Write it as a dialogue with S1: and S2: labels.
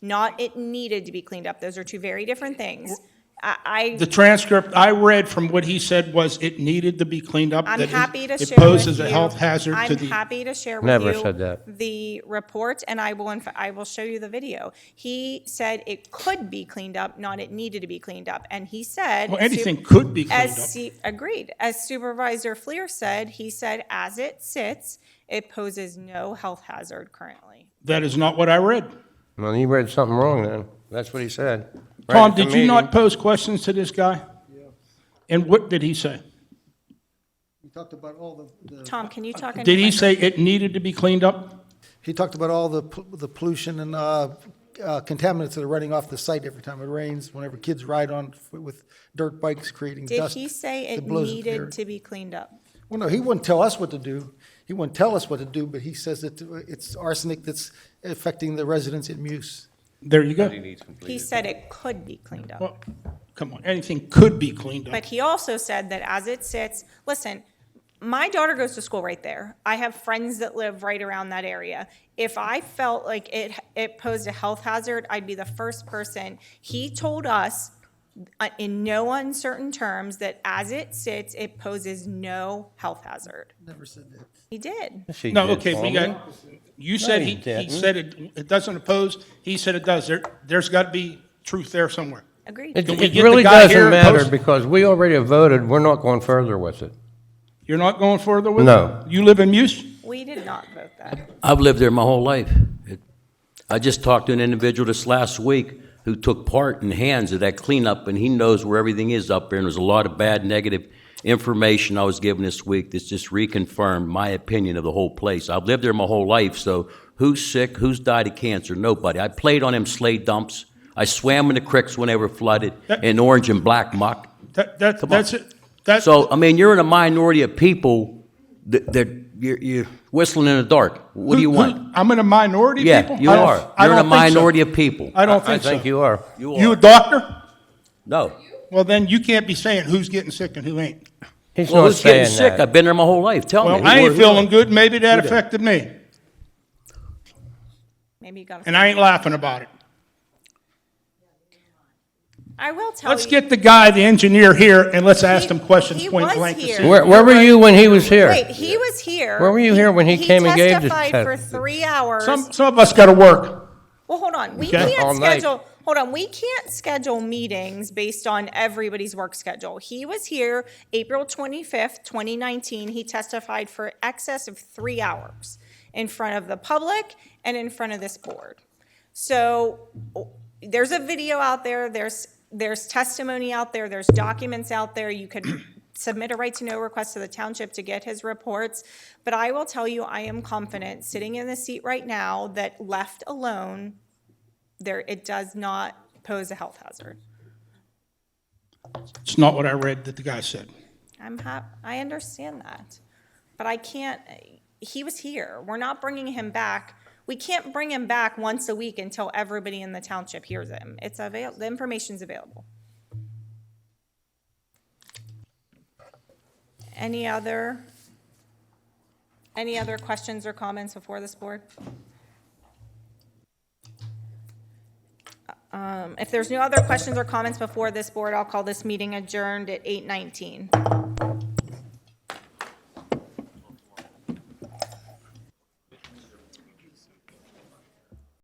S1: not it needed to be cleaned up. Those are two very different things. I, I
S2: The transcript I read from what he said was it needed to be cleaned up.
S1: I'm
S2: that it-
S1: happy to share
S2: It poses
S1: with
S2: a
S1: you-
S2: health hazard to
S1: I'm
S2: the,
S1: happy to share with
S3: Never
S1: you
S3: said that.
S1: the report, and I will. Inf- I will show you the video. He said it could be cleaned up, not it needed to be cleaned up, and he said
S2: well, anything could be cleaned
S1: As
S2: up.
S1: C- agreed, as Supervisor Fleer said, he said as it sits, it poses no health hazard currently.
S2: That is not what I read.
S3: Well, you read something wrong then. That's what he said. Right
S2: Tom,
S3: at the
S2: did you not
S3: meeting.
S2: pose questions to this guy? And what did he say?
S4: He talked about all the, the,
S1: Tom, can you talk? into
S2: Did he
S1: my-
S2: say it needed to be cleaned up?
S4: he talked about all the, pol- the pollution and, uh, uh, contaminants that are running off the site every time it rains, whenever kids ride on f- with dirt bikes creating
S1: Did
S4: dust.
S1: he say it
S4: that blows into the air.
S1: needed to be cleaned up?
S4: Well, no, he wouldn't tell us what to do. He wouldn't tell us what to do, but he says that uh, it's arsenic that's affecting the residents in Muse.
S2: There you go.
S1: He said it could be cleaned up.
S2: Well, come on, anything could be cleaned up.
S1: But he also said that as it sits, listen, my daughter goes to school right there. I have friends that live right around that area. If I felt like it, it posed a health hazard, I'd be the first person. He told us uh, in no uncertain terms that as it sits, it poses no health hazard.
S4: Never said that.
S1: He did.
S3: Yes, he
S2: No,
S3: did,
S2: okay, we
S3: Tom.
S2: got, you said he, he
S3: he didn't.
S2: said it, it doesn't oppose, he said it does. There, there's got to be truth there somewhere.
S1: Agreed.
S3: It,
S2: Can we
S3: it
S2: get the
S3: really
S2: guy here
S3: doesn't
S2: and
S3: matter
S2: post-
S3: because we already have voted. We're not going further with it.
S2: You're not going further with it?
S3: No.
S2: You live in Muse?
S1: We did not vote that.
S5: I've lived there my whole life. It- I just talked to an individual this last week who took part in hands of that cleanup, and he knows where everything is up there, and there's a lot of bad, negative information I was given this week that's just reconfirmed my opinion of the whole place. I've lived there my whole life, so who's sick, who's died of cancer? Nobody. I played on them sleigh dumps. I swam in the creeks when they were flooded, in orange and black muck.
S2: That, that,
S5: on.
S2: that's it. That's,
S5: So, um, I mean, you're in a minority of people that, that you're, you're whistling in the dark. What do you
S2: Who-
S5: want?
S2: who- I'm in a minority,
S5: Yeah,
S2: people?
S5: you
S2: I don't-
S5: are.
S2: I
S5: You're in a
S2: don't think so.
S5: minority of people.
S2: I don't
S3: I
S2: think so.
S3: think you are.
S5: You
S2: You a
S5: are.
S2: doctor?
S5: No.
S2: Well, then you can't be saying who's getting sick and who ain't.
S3: He's
S5: Well,
S3: not
S5: who's getting
S3: saying
S5: sick? I've
S3: that.
S5: been there my whole life. Tell me.
S2: Well,
S5: who-
S2: I ain't
S5: who-
S2: feeling good, maybe that affected me,
S1: Maybe you got,
S2: and I ain't laughing about it.
S1: I will tell you.
S2: Let's get the guy, the engineer here, and let's ask him questions
S1: He- he
S2: point
S1: was
S2: blank. to
S1: here.
S2: see-
S3: Where, where were you when he was here?
S1: Wait, he was here.
S3: Where were you here when he came and gave the
S1: He testified for
S3: test-
S1: three hours.
S2: Some, some of us got to work.
S1: Well, hold on, we
S2: Okay.
S3: All
S1: can't
S3: night.
S1: schedule, hold on, we can't schedule meetings based on everybody's work schedule. He was here April twenty-fifth, twenty nineteen, he testified for excess of three hours in front of the public and in front of this board. So oh, there's a video out there, there's, there's testimony out there, there's documents out there. You could submit a right to know request to the township to get his reports. But I will tell you, I am confident, sitting in the seat right now, that left alone, there, it does not pose a health hazard.
S2: It's not what I read that the guy said.
S1: I'm hap, I understand that. But I can't, he was here. We're not bringing him back. We can't bring him back once a week until everybody in the township hears him. It's avail, the information's available. Any other, any other questions or comments before this board? Um, If there's no other questions or comments before this board, I'll call this meeting adjourned at 8:19.